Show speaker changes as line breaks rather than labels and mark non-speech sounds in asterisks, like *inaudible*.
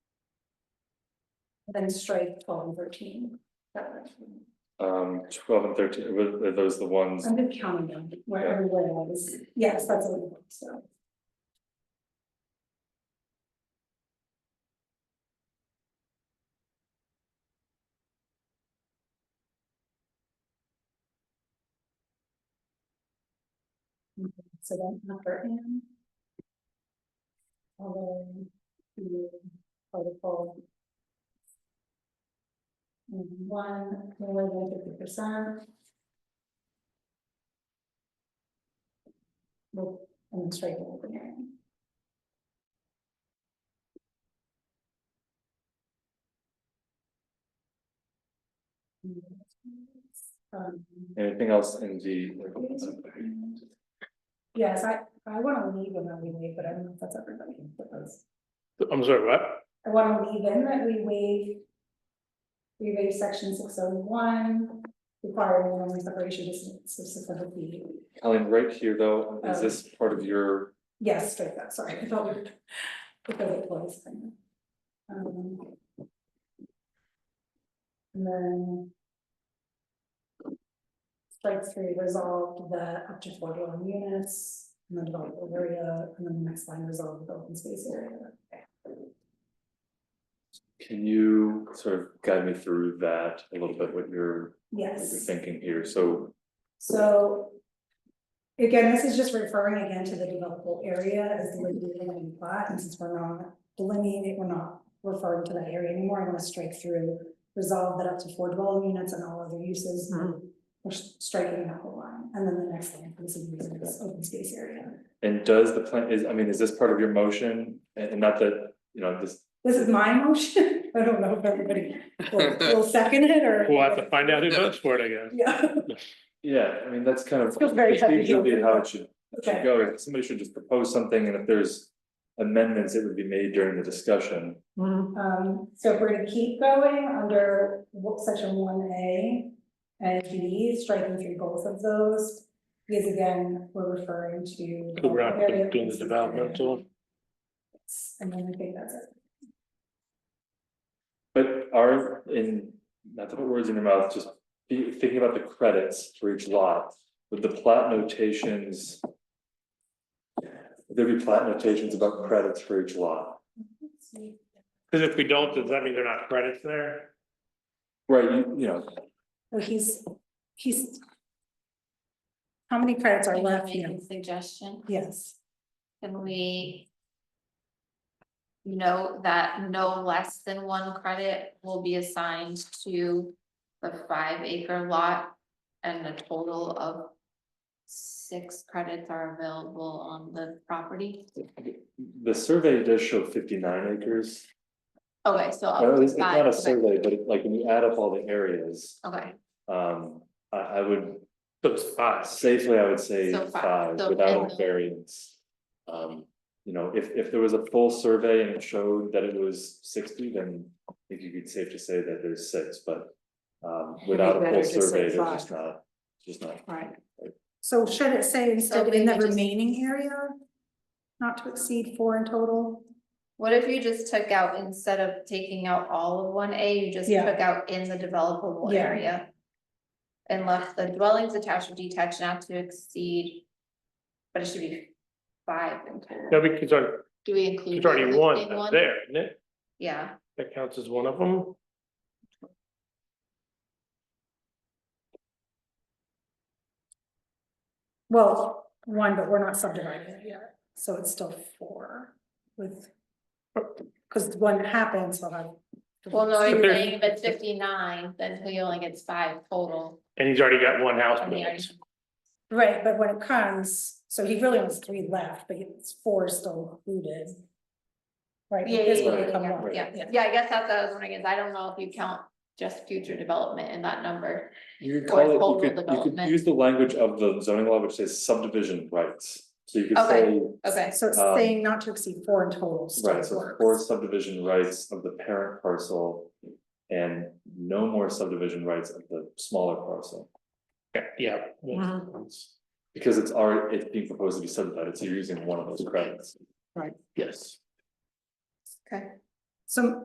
Then strike twelve and thirteen.
Um, twelve and thirteen, were, are those the ones,
I'm just counting them where
Yeah.
everywhere was, yes, that's what it was, so. Okay, So then after and. Although the article. One, more than fifty percent. Well, and straight to open hearing. Um,
anything else in the?
Yes, I, I wanna leave in that we waive, but I don't know if that's everybody, but those-
I'm sorry, what?
I wanna leave in that we waive. We waive section six oh one, requiring minimum separation distance of six hundred feet.
Colleen, right here though, is
Um.
this part of your,
Yes, straight that, sorry, I thought we were. Because it was. Um, And then. Strike three resolved the up to four dwelling units, and then developable area, and then the next line resolved the open space area.
can you sort of guide me through that a little bit, what you're, what you're
Yes,
thinking here, so.
so. Again, this is just referring again to the developable area as the land plot, and since we're not delineating, we're not referring to that area anymore, I wanna strike through. Resolve that up to four dwelling units and all other uses, we're s- striking that whole line, and then the next line, this is this open space area.
And does the plan, is, I mean, is this part of your motion, and, and not that, you know, this,
This is my motion, *laughs* I don't know if everybody will, will second it or.
We'll have to find out who votes for it, I guess.
*laughs* Yeah, *laughs*
yeah, I mean, that's kind of.
feels very
it's
heavy.
Usually how it should should
okay,
go, is somebody should just propose something, and if there's amendments, it would be made during the discussion.
um, so if we're gonna keep going under wo- section one A and B, striking through both of those. Because again, we're referring to.
We're not
area, open
doing the
space area.
developmental,
And then I think that's it.
But are in, not to put words in your mouth, just be thinking about the credits for each lot, with the plat notations. would There be plat notations about credits for each lot,
because if we don't, does that mean they're not credits there?
right, you you know,
Well, he's, he's. How many credits are
Can I
left
make
here?
a suggestion,
Yes.
can we? Note that no less than one credit will be assigned to the five acre lot. And a total of six credits are available on the property.
the survey does show fifty nine acres.
Okay, so. up
Or at
to
least it's not
five,
a
okay,
survey, but it- like when you add up all the areas,
Okay,
um, I I would
So it's five.
safely, I would say
So five,
five
so
without
minimum.
variance. Um, you know, if if there was a full survey and it showed that it was sixty, then I think you could safe to say that there's six, but. Um, without a
better
full
to say
survey, there's
five.
just not, just not,
Right.
So should it say instead
So
in the
maybe just-
remaining area? Not to exceed four in total?
what if you just took out, instead of taking out all of one A, you just
Yeah.
took out in the developable
Yeah.
area? And left the dwellings attached or detached not to exceed. But it should be five in total.
No, because there-
Do we include?
there's
the
already one
existing
that's there, isn't it?
Yeah,
That counts as one of them.
Well, one, but we're not subdividing it yet, so it's still four with. Cause when it happens, we'll have.
well, no, you're
there's-
saying if it's fifty-nine, then he only gets five total.
And he's already got one house.
and he already-
built.
Right, but when it comes, so he really has three left, but it's four still included. Right,
Yeah,
this
yeah,
would become
yeah,
one,
yeah, yeah, yeah, I guess that's what I was wondering, is I don't know if you count just future development in that number.
you could
Or
call
total
it, you could, you could
development.
use the language of the zoning law, which says subdivision rights. So you could say,
Okay. Okay,
So it's
Um,
saying not to exceed four in total still
right,
works.
so four subdivision rights of the parent parcel. And no more subdivision rights of the smaller parcel.
Yeah, Yeah.
Because it's already, it's being proposed to be subdivided, so you're using one of those credits.
Right.
Yes.
okay.
So